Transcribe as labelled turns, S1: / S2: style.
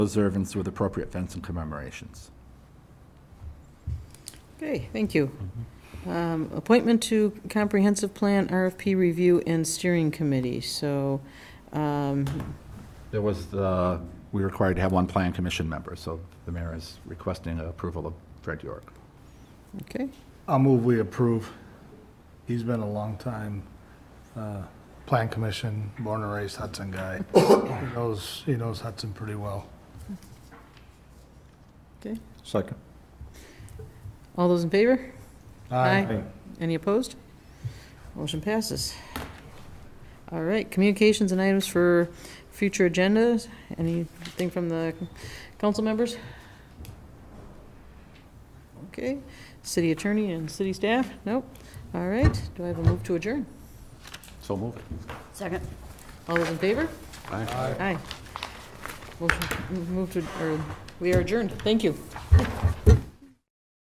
S1: observance with appropriate fence and commemorations.
S2: Okay, thank you. Um, Appointment to Comprehensive Plan, RFP Review and Steering Committee, so, um,
S1: There was the, we required to have one plan commission member, so the mayor is requesting approval of Fred York.
S2: okay,
S3: I'll move we approve. He's been a long time, uh, Plan Commission, born and raised Hudson guy. He Knows, he knows Hudson pretty well.
S2: okay.
S4: Second.
S2: All those in favor? Any opposed? Motion passes. All right, communications and items for future agendas. Anything from the council members? Okay, city attorney and city staff? Nope. All right, do I have a move to adjourn?
S4: So moved.
S5: Second.
S2: All those in favor?
S4: Aye.
S2: Aye. Motion, move to, or, we are adjourned. Thank you.